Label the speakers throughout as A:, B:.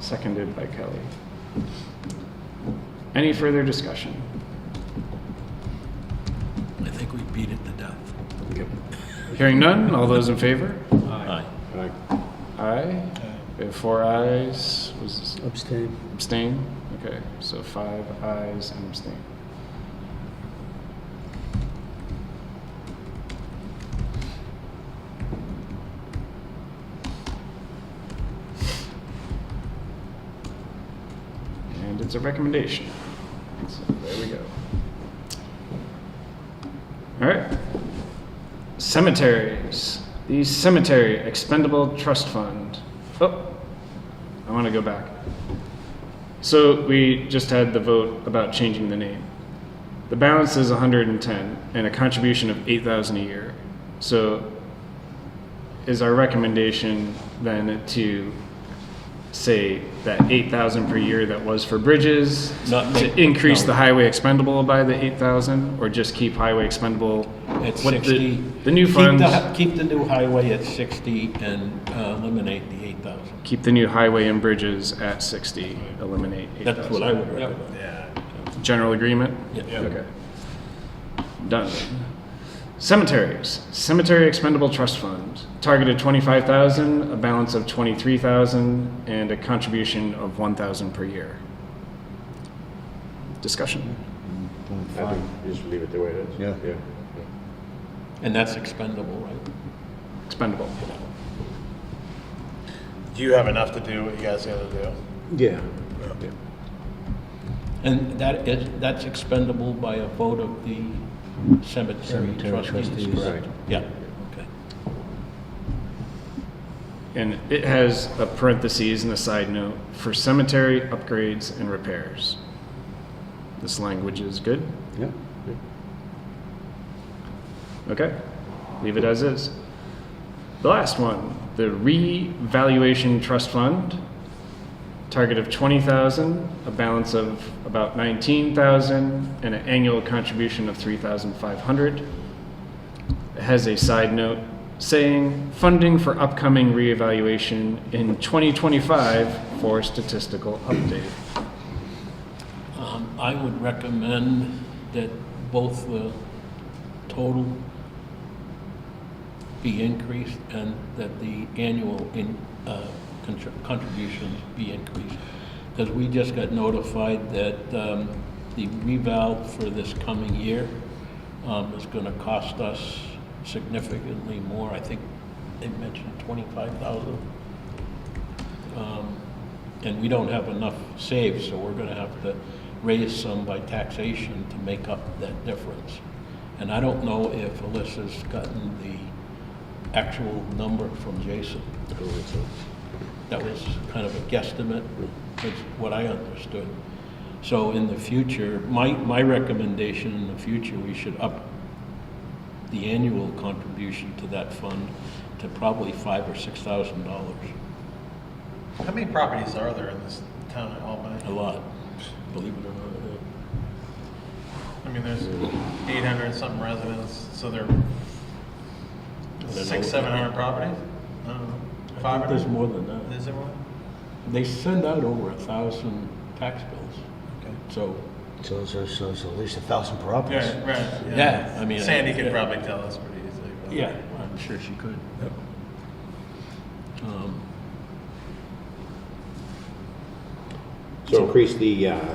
A: seconded by Kelly. Any further discussion?
B: I think we beat it to death.
A: Hearing none, all those in favor?
B: Aye.
A: Aye. We have four ayes. Was this
C: Abstain.
A: abstain? Okay, so five ayes and abstain. And it's a recommendation. So there we go. All right. Cemeteries. The Cemetery Expendable Trust Fund. Oh, I want to go back. So we just had the vote about changing the name. The balance is 110 and a contribution of 8,000 a year. So is our recommendation then to say that 8,000 per year that was for bridges
B: Not
A: to
B: make-
A: increase
B: no.
A: the highway expendable by the 8,000 or just keep highway expendable
B: At
A: what the-
B: 60.
A: The new
B: Keep
A: funds,
B: the- Keep the new highway at 60 and uh, eliminate the 8,000.
A: keep the new highway and bridges at 60, eliminate 8,000.
B: That's what I would recommend.
A: General agreement?
B: Yeah.
A: Okay. Done. Cemeteries, Cemetery Expendable Trust Fund, targeted twenty-five thousand, a balance of twenty-three thousand, and a contribution of one thousand per year. Discussion.
D: I think you just leave it the way it is.
E: Yeah.
B: And that's expendable, right?
A: Expendable.
F: Do you have enough to do what you guys gotta do?
E: Yeah.
B: And that is, that's expendable by a vote of the cemetery
C: Cemetery
B: trustees,
C: trustees.
B: correct? Yeah, okay.
A: And it has a parentheses and a side note for cemetery upgrades and repairs. This language is good?
E: Yeah.
A: Okay, leave it as is. The last one, the revaluation trust fund, target of twenty thousand, a balance of about nineteen thousand, and an annual contribution of three thousand five hundred. It has a side note saying funding for upcoming reevaluation in twenty twenty-five for statistical update.
B: Um, I would recommend that both the total be increased and that the annual in, uh, contr- contributions be increased. Because we just got notified that, um, the reval for this coming year, um, is gonna cost us significantly more. I think they mentioned twenty-five thousand. And we don't have enough saved, so we're gonna have to raise some by taxation to make up that difference. And I don't know if Alyssa's gotten the actual number from Jason. That was kind of a guesstimate, is what I understood. So in the future, my, my recommendation in the future, we should up the annual contribution to that fund to probably five or six thousand dollars.
F: How many properties are there in this town at Albany?
B: A lot, believe it or not.
F: I mean, there's eight hundred something residents, so there
B: don't
F: six,
B: know.
F: seven hundred properties? I don't know.
B: I
F: Five
B: think
F: hundred?
B: There's more than that.
F: Is there more?
B: They send out over a thousand tax bills,
F: Okay.
B: so,
C: So it's, so it's at least a thousand per office.
F: Yeah, right.
B: Yeah, I mean,
F: Sandy
B: yeah.
F: could probably tell us pretty easily. but-
B: yeah, I'm sure she could. Um,
D: So increase the, uh,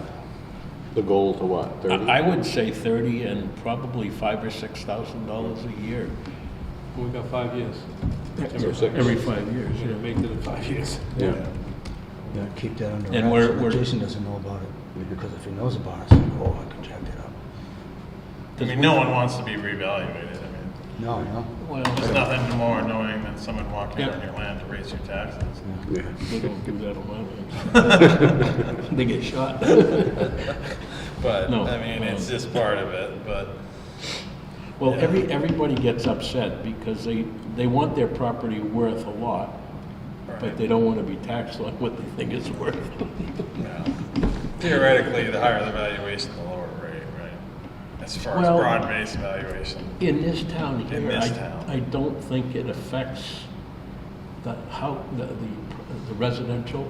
D: the goal to what,
B: I,
D: 30?
B: I would say thirty and probably five or six thousand dollars a year.
G: We've got five years.
D: Or six.
B: five years,
G: We're gonna make it in five years.
D: Yeah.
C: Yeah, keep that under
B: And
C: wraps
B: we're-
C: so that
B: we're-
C: Jason doesn't know about it, because if he knows about it, it's like, oh, I can jack that up.
F: I mean, no one wants to be reevaluated. I mean,
C: No, no.
F: there's
B: Well,
F: nothing more annoying than someone walking
B: Yeah.
F: on your land to raise your taxes.
D: Yeah.
B: they don't do that on my land. They get shot.
F: But,
B: No,
F: I mean, it's
B: um,
F: just part of it, but.
B: Well, every, everybody gets upset because they, they want their property worth a lot, but they don't want to be taxed on what they think it's worth.
F: Theoretically, the higher the valuation, the lower rate, right? As far as
B: Well-
F: broad-based valuation.
B: In this town
F: In
B: here,
F: this
B: I,
F: town.
B: I don't think it affects the, how, the, the the residential